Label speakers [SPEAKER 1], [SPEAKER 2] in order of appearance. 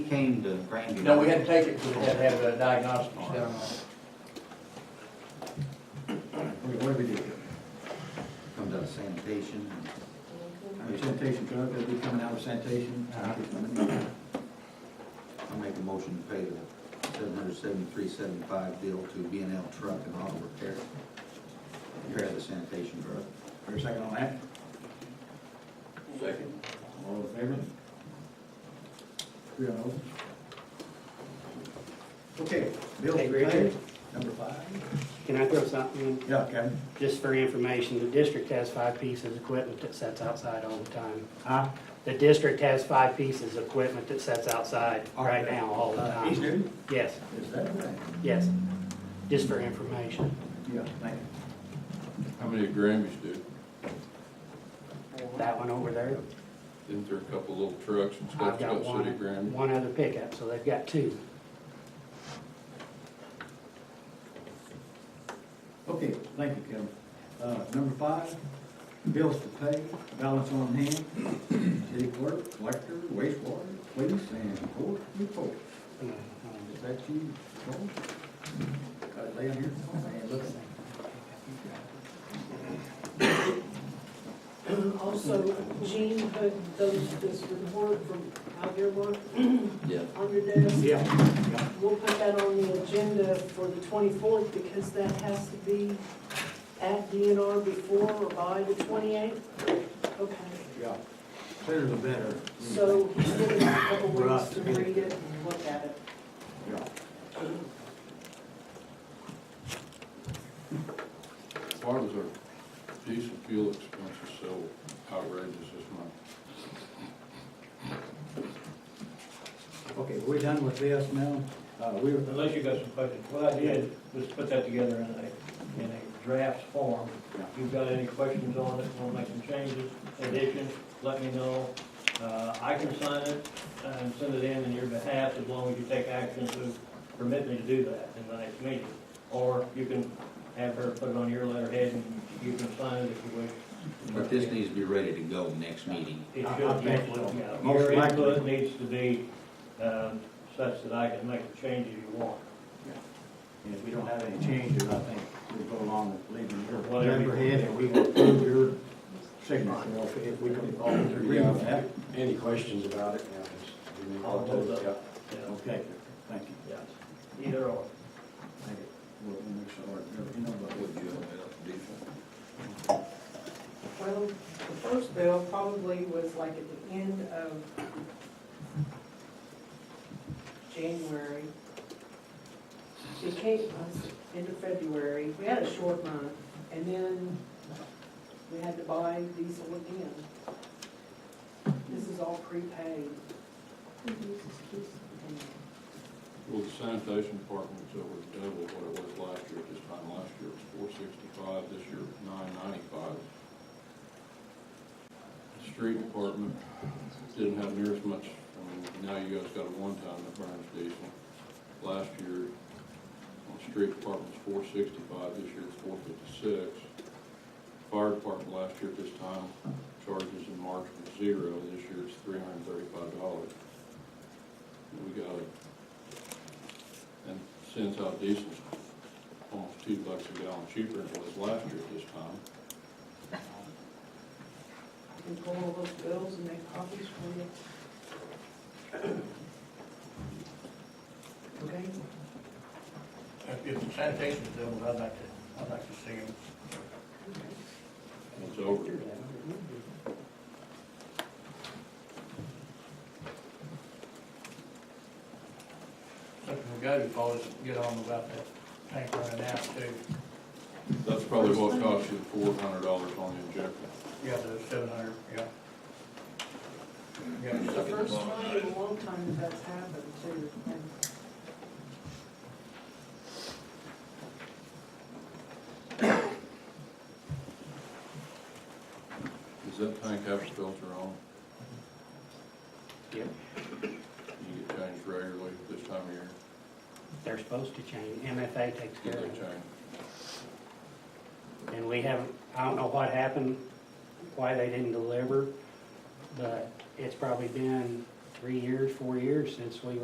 [SPEAKER 1] came to Grandview.
[SPEAKER 2] No, we had to take it, because we had to have uh, diagnostics done on it.
[SPEAKER 3] What what do we do?
[SPEAKER 1] Comes out of sanitation.
[SPEAKER 3] Our sanitation truck, that'd be coming out of sanitation. Uh-huh.
[SPEAKER 1] I make a motion to pay the seven hundred seventy-three seventy-five bill to B and L Truck and Auto Repair. Repair the sanitation truck.
[SPEAKER 3] For a second on that?
[SPEAKER 2] Second.
[SPEAKER 3] All in favor? Three oh. Okay, bills
[SPEAKER 4] Hey, Richard.
[SPEAKER 3] paid, number five.
[SPEAKER 4] Can I throw something in?
[SPEAKER 3] Yeah, Kevin.
[SPEAKER 4] Just for information, the district has five pieces of equipment that sets outside all the time.
[SPEAKER 3] Huh?
[SPEAKER 4] The district has five pieces of equipment that sets outside right now all the
[SPEAKER 3] Uh, He's
[SPEAKER 4] time.
[SPEAKER 3] new?
[SPEAKER 4] Yes,
[SPEAKER 3] Is that right?
[SPEAKER 4] yes, just for information.
[SPEAKER 3] Yeah, thank you.
[SPEAKER 5] How many Grammys do?
[SPEAKER 4] That one over there,
[SPEAKER 5] Isn't there a couple little trucks and
[SPEAKER 4] I've
[SPEAKER 5] stuff
[SPEAKER 4] got
[SPEAKER 5] got city
[SPEAKER 4] one,
[SPEAKER 5] Grammy?
[SPEAKER 4] one other pickup, so they've got two.
[SPEAKER 3] Okay, thank you, Kevin. Uh, number five, bills to pay, balance on hand, city clerk, collector, wastewater, police, and court report. Is that you, Joel? Got it down here? Oh, man, look at that.
[SPEAKER 6] Um, Also, Jean put those, this report from out here, Mark,
[SPEAKER 2] Yeah.
[SPEAKER 6] on your desk.
[SPEAKER 3] Yeah,
[SPEAKER 6] We'll put that on the agenda for the twenty-fourth because that has to be at DNR before or by the twenty-eighth. Okay,
[SPEAKER 3] yeah. Clearer the better.
[SPEAKER 6] so he's given us a couple weeks
[SPEAKER 3] Right.
[SPEAKER 6] to read it and look at it.
[SPEAKER 3] Yeah.
[SPEAKER 5] Why was our diesel fuel expenses so outrageous this month?
[SPEAKER 3] Okay, we're done with this now. Uh, we were,
[SPEAKER 2] Unless you got some questions, what I did was put that together in a, in a draft form.
[SPEAKER 3] Yeah.
[SPEAKER 2] If you've got any questions on it, want to make some changes, additions, let me know. Uh, I can sign it and send it in in your behalf as long as you take action to permit me to do that in the next meeting. Or you can have her put it on your letterhead and you can sign it if you wish.
[SPEAKER 1] But this needs to be ready to go next meeting.
[SPEAKER 2] It
[SPEAKER 3] I- I
[SPEAKER 2] should,
[SPEAKER 3] think
[SPEAKER 2] yeah,
[SPEAKER 3] so.
[SPEAKER 2] yeah.
[SPEAKER 3] Most
[SPEAKER 2] Your
[SPEAKER 3] likely.
[SPEAKER 2] input needs to be, um, such that I can make the changes you want.
[SPEAKER 3] and if we don't have any changes, I think we'll go along with leaving your
[SPEAKER 2] Whatever.
[SPEAKER 3] number head and we will approve your signature if- if we can all agree on that.
[SPEAKER 7] Any questions about it? Yeah, just give me a
[SPEAKER 2] I'll
[SPEAKER 7] call.
[SPEAKER 2] hold up.
[SPEAKER 7] Yeah.
[SPEAKER 2] Yeah.
[SPEAKER 3] Okay, thank you.
[SPEAKER 2] Yeah. Either or.
[SPEAKER 3] Thank you. We'll, we'll make sure, you know, but
[SPEAKER 1] Would you open it up to diesel?
[SPEAKER 6] Well, the first bill probably was like at the end of January. It came, us into February, we had a short month, and then we had to buy diesel again. This is all prepaid.
[SPEAKER 5] Well, the sanitation department's over double what it was last year, this time last year it was four sixty-five, this year nine ninety-five. The street department didn't have near as much, I mean, now you guys got a one-time that burns diesel. Last year, on the street department was four sixty-five, this year it's four fifty-six. Fire department last year at this time, charges in March was zero, this year it's three hundred and thirty-five dollars. We got a and since our diesel's almost two bucks a gallon cheaper than it was last year at this time,
[SPEAKER 6] I can pull all those bills and make copies for you. Okay?
[SPEAKER 2] If the sanitation's done, I'd like to, I'd like to see them.
[SPEAKER 5] and it's over.
[SPEAKER 2] Something we gotta do is get on about that tank running out too.
[SPEAKER 5] That's probably what cost you four hundred dollars on the injector.
[SPEAKER 2] Yeah, the seven hundred, yeah.
[SPEAKER 6] It's
[SPEAKER 2] Yeah,
[SPEAKER 6] the first time in a long time that that's happened too. And
[SPEAKER 5] Does that tank have a filter on?
[SPEAKER 4] Yep.
[SPEAKER 5] You get changed regularly this time of year,
[SPEAKER 4] They're supposed to change, MFA takes care
[SPEAKER 5] get they
[SPEAKER 4] of it.
[SPEAKER 5] changed?
[SPEAKER 4] And we haven't, I don't know what happened, why they didn't deliver, but it's probably been three years, four years since we